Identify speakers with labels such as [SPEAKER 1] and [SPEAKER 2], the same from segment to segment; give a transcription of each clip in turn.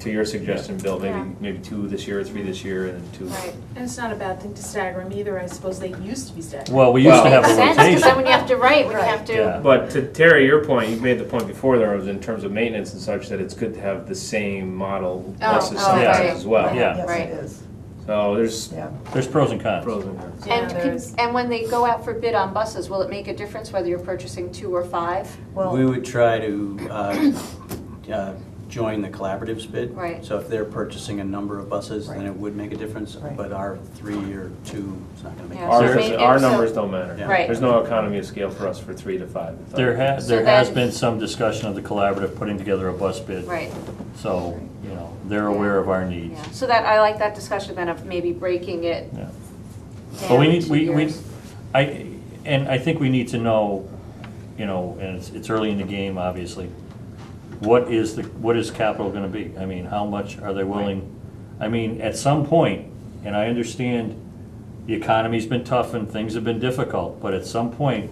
[SPEAKER 1] to your suggestion, Bill,
[SPEAKER 2] Yeah.
[SPEAKER 1] maybe, maybe two this year, three this year, and then two.
[SPEAKER 2] Right, and it's not a bad thing to stagger them either, I suppose they used to be staggered.
[SPEAKER 3] Well, we used to
[SPEAKER 1] Well-
[SPEAKER 3] have
[SPEAKER 4] Makes
[SPEAKER 3] a
[SPEAKER 4] sense, because then when
[SPEAKER 3] rotation.
[SPEAKER 4] you have to write, when you have
[SPEAKER 3] Yeah.
[SPEAKER 4] to,
[SPEAKER 1] But to Terry, your point, you made the point before there was in terms of maintenance and such, that it's good to have the same model
[SPEAKER 4] Oh,
[SPEAKER 1] buses
[SPEAKER 4] oh,
[SPEAKER 1] sometimes
[SPEAKER 4] right.
[SPEAKER 1] as well.
[SPEAKER 3] Yeah.
[SPEAKER 4] Right.
[SPEAKER 5] Yes, it is,
[SPEAKER 1] So there's
[SPEAKER 5] yeah.
[SPEAKER 3] There's pros and cons.
[SPEAKER 1] pros and cons.
[SPEAKER 2] Yeah,
[SPEAKER 4] and,
[SPEAKER 2] there's-
[SPEAKER 4] could- and when they go out for bid on buses, will it make a difference whether you're purchasing two or five?
[SPEAKER 6] We
[SPEAKER 5] Well,
[SPEAKER 6] would try to uh, uh, join the collaborative's bid.
[SPEAKER 4] Right.
[SPEAKER 6] So if they're purchasing a number of buses, then
[SPEAKER 5] Right.
[SPEAKER 6] it would make a difference,
[SPEAKER 5] Right.
[SPEAKER 6] but our three or two is not going to make a
[SPEAKER 4] Yeah.
[SPEAKER 6] difference.
[SPEAKER 1] Ours,
[SPEAKER 4] So-
[SPEAKER 1] our
[SPEAKER 4] so-
[SPEAKER 1] numbers don't matter.
[SPEAKER 6] Yeah.
[SPEAKER 4] Right.
[SPEAKER 1] There's no economy of scale for us for three to five.
[SPEAKER 3] There has,
[SPEAKER 4] So
[SPEAKER 3] there has
[SPEAKER 4] then-
[SPEAKER 3] been some discussion of the collaborative putting together a bus bid.
[SPEAKER 4] Right,
[SPEAKER 3] So, you know, they're aware of our needs.
[SPEAKER 4] yeah, so that, I like that discussion then of maybe breaking it
[SPEAKER 3] Yeah. But we
[SPEAKER 4] down
[SPEAKER 3] need,
[SPEAKER 4] to
[SPEAKER 3] we, we,
[SPEAKER 4] yours.
[SPEAKER 3] I, and I think we need to know, you know, and it's, it's early in the game, obviously, what is the, what is capital gonna be? I mean, how much are they willing? I mean, at some point, and I understand the economy's been tough and things have been difficult, but at some point,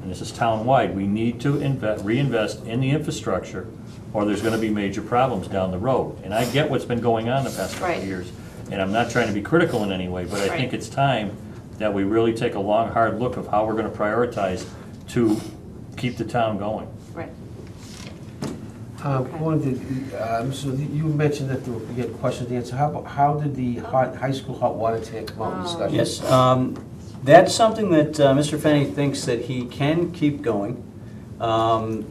[SPEAKER 3] and this is town-wide, we need to invest, reinvest in the infrastructure, or there's gonna be major problems down the road. And I get what's been going on the past couple
[SPEAKER 4] Right.
[SPEAKER 3] of years, and I'm not trying to be critical in any way, but I
[SPEAKER 4] Right.
[SPEAKER 3] think it's time that we really take a long, hard look of how we're gonna prioritize to keep the town going.
[SPEAKER 4] Right,
[SPEAKER 7] Um,
[SPEAKER 4] Okay.
[SPEAKER 7] One, did, um, so you mentioned that there- you had questions to answer. How, about- how did the
[SPEAKER 4] Oh.
[SPEAKER 7] hot, high school hot water tank come out in discussion?
[SPEAKER 6] Yes, um, that's something that uh, Mr. Fenny thinks that he can keep going. Um,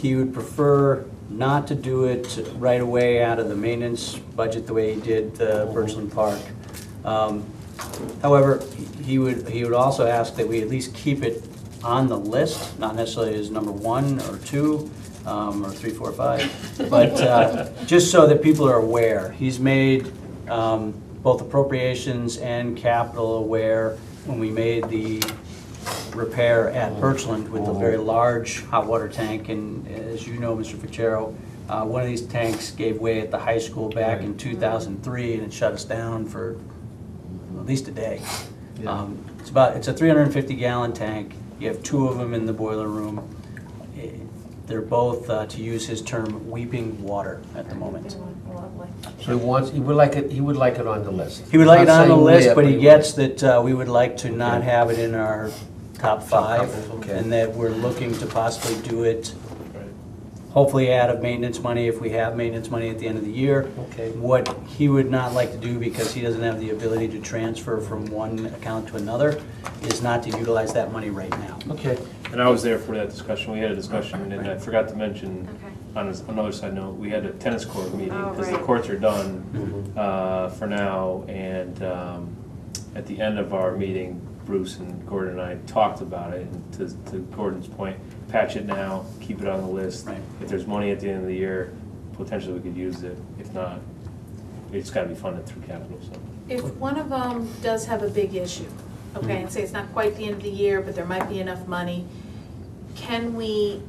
[SPEAKER 6] He would prefer not to do it right away out of the maintenance budget the way he did uh, Birchland Park. Um, However, he would, he would also ask that we at least keep it on the list, not necessarily as number one or two, um, or three, four, five, but uh, just so that people are aware. He's made um, both appropriations and capital aware when we made the repair at Birchland with the very large hot water tank, and as you know, Mr. Fitzgerald, uh, one of these tanks gave way at the high school back in 2003, and it shut us down for at least a day. Um, It's about, it's a 350 gallon tank, you have two of them in the boiler room. Eh, They're both, uh, to use his term, weeping water at the moment.
[SPEAKER 2] Lovely.
[SPEAKER 7] So he wants, he would like it, he would like it on the list.
[SPEAKER 6] He would like it
[SPEAKER 7] Not
[SPEAKER 6] on the
[SPEAKER 7] saying
[SPEAKER 6] list,
[SPEAKER 7] where,
[SPEAKER 6] but he gets that uh, we would like to not have it in our top five,
[SPEAKER 7] couple, okay.
[SPEAKER 6] and that we're looking to possibly do it, hopefully out of maintenance money, if we have maintenance money at the end of the year.
[SPEAKER 7] Okay.
[SPEAKER 6] What he would not like to do, because he doesn't have the ability to transfer from one account to another, is not to utilize that money right now.
[SPEAKER 7] Okay. Uh,
[SPEAKER 1] And I was there for that discussion, we had a discussion, and I forgot to mention,
[SPEAKER 4] Okay.
[SPEAKER 1] on a- another side note, we had a tennis court meeting,
[SPEAKER 4] Oh,
[SPEAKER 1] because the
[SPEAKER 4] right.
[SPEAKER 1] courts are done uh, for now, and um, at the end of our meeting, Bruce and Gordon and I talked about it, and to to Gordon's point, patch it now, keep it on the list.
[SPEAKER 6] Right.
[SPEAKER 1] If there's money at the end of the year, potentially we could use it, if not, it's gotta be funded through capital, so.
[SPEAKER 2] If one of them does have a big issue, okay, and say it's not quite the end of the year, but there might be enough money, can we,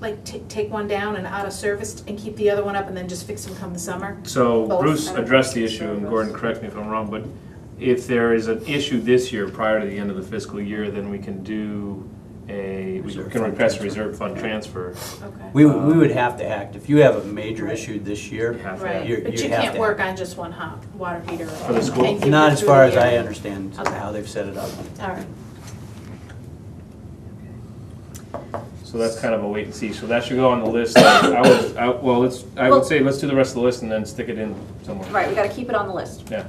[SPEAKER 2] like, ta- take one down and out of service and keep the other one up and then just fix them come the summer?
[SPEAKER 1] So
[SPEAKER 2] Both.
[SPEAKER 1] Bruce addressed the issue, and Gordon, correct me if I'm wrong, but if there is an issue this year prior to the end of the fiscal year, then we can do a, we
[SPEAKER 6] Reserve
[SPEAKER 1] can
[SPEAKER 6] fund
[SPEAKER 1] request a
[SPEAKER 6] transfer.
[SPEAKER 1] reserve fund transfer.
[SPEAKER 2] Okay.
[SPEAKER 6] We, would- we
[SPEAKER 7] Um,
[SPEAKER 6] would have to act. If you have a major issue this year,
[SPEAKER 1] You have to
[SPEAKER 2] Right,
[SPEAKER 6] you you have to
[SPEAKER 2] but you can't
[SPEAKER 6] act.
[SPEAKER 2] work on just one hot water heater.
[SPEAKER 1] For the school?
[SPEAKER 2] and keep
[SPEAKER 6] Not
[SPEAKER 2] it
[SPEAKER 6] as
[SPEAKER 2] through
[SPEAKER 6] far
[SPEAKER 2] the
[SPEAKER 6] as I
[SPEAKER 2] year.
[SPEAKER 6] understand
[SPEAKER 2] Okay.
[SPEAKER 6] how they've set it up.
[SPEAKER 2] All right.
[SPEAKER 1] So that's kind of a wait and see, so that should go on the list. I would, I, well, let's, I
[SPEAKER 4] Well-
[SPEAKER 1] would say, let's do the rest of the list and then stick it in somewhere.
[SPEAKER 4] right, we gotta keep it on the list.
[SPEAKER 1] Yeah,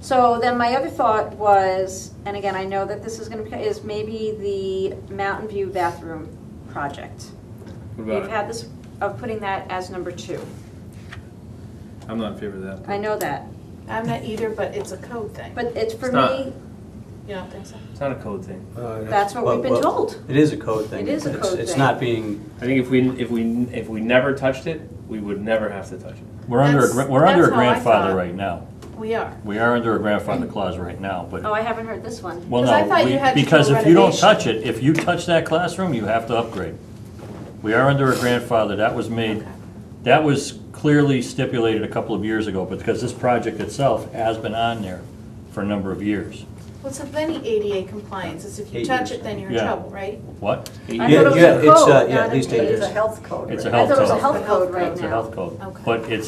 [SPEAKER 4] So then my other thought was, and again, I know that this is gonna, be- is maybe the Mountain View bathroom project.
[SPEAKER 1] what
[SPEAKER 4] We've
[SPEAKER 1] about it?
[SPEAKER 4] had this, of putting that as number two.
[SPEAKER 1] I'm not in favor of that.
[SPEAKER 4] I know that,
[SPEAKER 2] I'm not either, but it's a code thing.
[SPEAKER 4] but it's for
[SPEAKER 1] It's not.
[SPEAKER 4] me,
[SPEAKER 2] You don't think so?
[SPEAKER 1] It's not a code thing.
[SPEAKER 7] Uh,
[SPEAKER 4] that's what we've been
[SPEAKER 6] Well, well,
[SPEAKER 4] told.
[SPEAKER 6] It is a code thing.
[SPEAKER 4] It is a
[SPEAKER 6] It's-
[SPEAKER 4] code
[SPEAKER 6] It's
[SPEAKER 4] thing.
[SPEAKER 6] not being,
[SPEAKER 1] I think if we, if we, if we never touched it, we would never have to touch it.
[SPEAKER 3] We're under, a gra-
[SPEAKER 2] That's-
[SPEAKER 3] we're under a
[SPEAKER 2] that's how I
[SPEAKER 3] grandfather
[SPEAKER 2] thought.
[SPEAKER 3] right now.
[SPEAKER 2] We are.
[SPEAKER 3] We are under a grandfather clause right now, but,
[SPEAKER 4] Oh, I haven't heard this one.
[SPEAKER 3] well,
[SPEAKER 2] 'Cause I
[SPEAKER 3] no,
[SPEAKER 2] thought
[SPEAKER 3] we-
[SPEAKER 2] you had to do
[SPEAKER 3] because if you don't
[SPEAKER 2] renovation.
[SPEAKER 3] touch it, if you touch that classroom, you have to upgrade. We are under a grandfather, that was made,
[SPEAKER 2] Okay.
[SPEAKER 3] that was clearly stipulated a couple of years ago, but because this project itself has been on there for a number of years.
[SPEAKER 2] Well, it's of any ADA compliance, it's if you
[SPEAKER 6] Eight
[SPEAKER 2] touch it,
[SPEAKER 6] years.
[SPEAKER 2] then you're in
[SPEAKER 3] Yeah.
[SPEAKER 2] trouble, right?
[SPEAKER 3] What?
[SPEAKER 4] I
[SPEAKER 6] Yeah,
[SPEAKER 4] thought it was
[SPEAKER 6] yeah,
[SPEAKER 4] a
[SPEAKER 6] it's,
[SPEAKER 4] code,
[SPEAKER 6] uh, yeah,
[SPEAKER 4] not
[SPEAKER 6] at
[SPEAKER 4] an
[SPEAKER 6] least it
[SPEAKER 4] age.
[SPEAKER 5] It's a health code,
[SPEAKER 3] It's a
[SPEAKER 5] right?
[SPEAKER 4] I
[SPEAKER 3] health
[SPEAKER 4] thought it was a
[SPEAKER 3] code.
[SPEAKER 4] health code right
[SPEAKER 3] It's
[SPEAKER 4] now.
[SPEAKER 3] a health code.
[SPEAKER 2] Okay.
[SPEAKER 3] But it's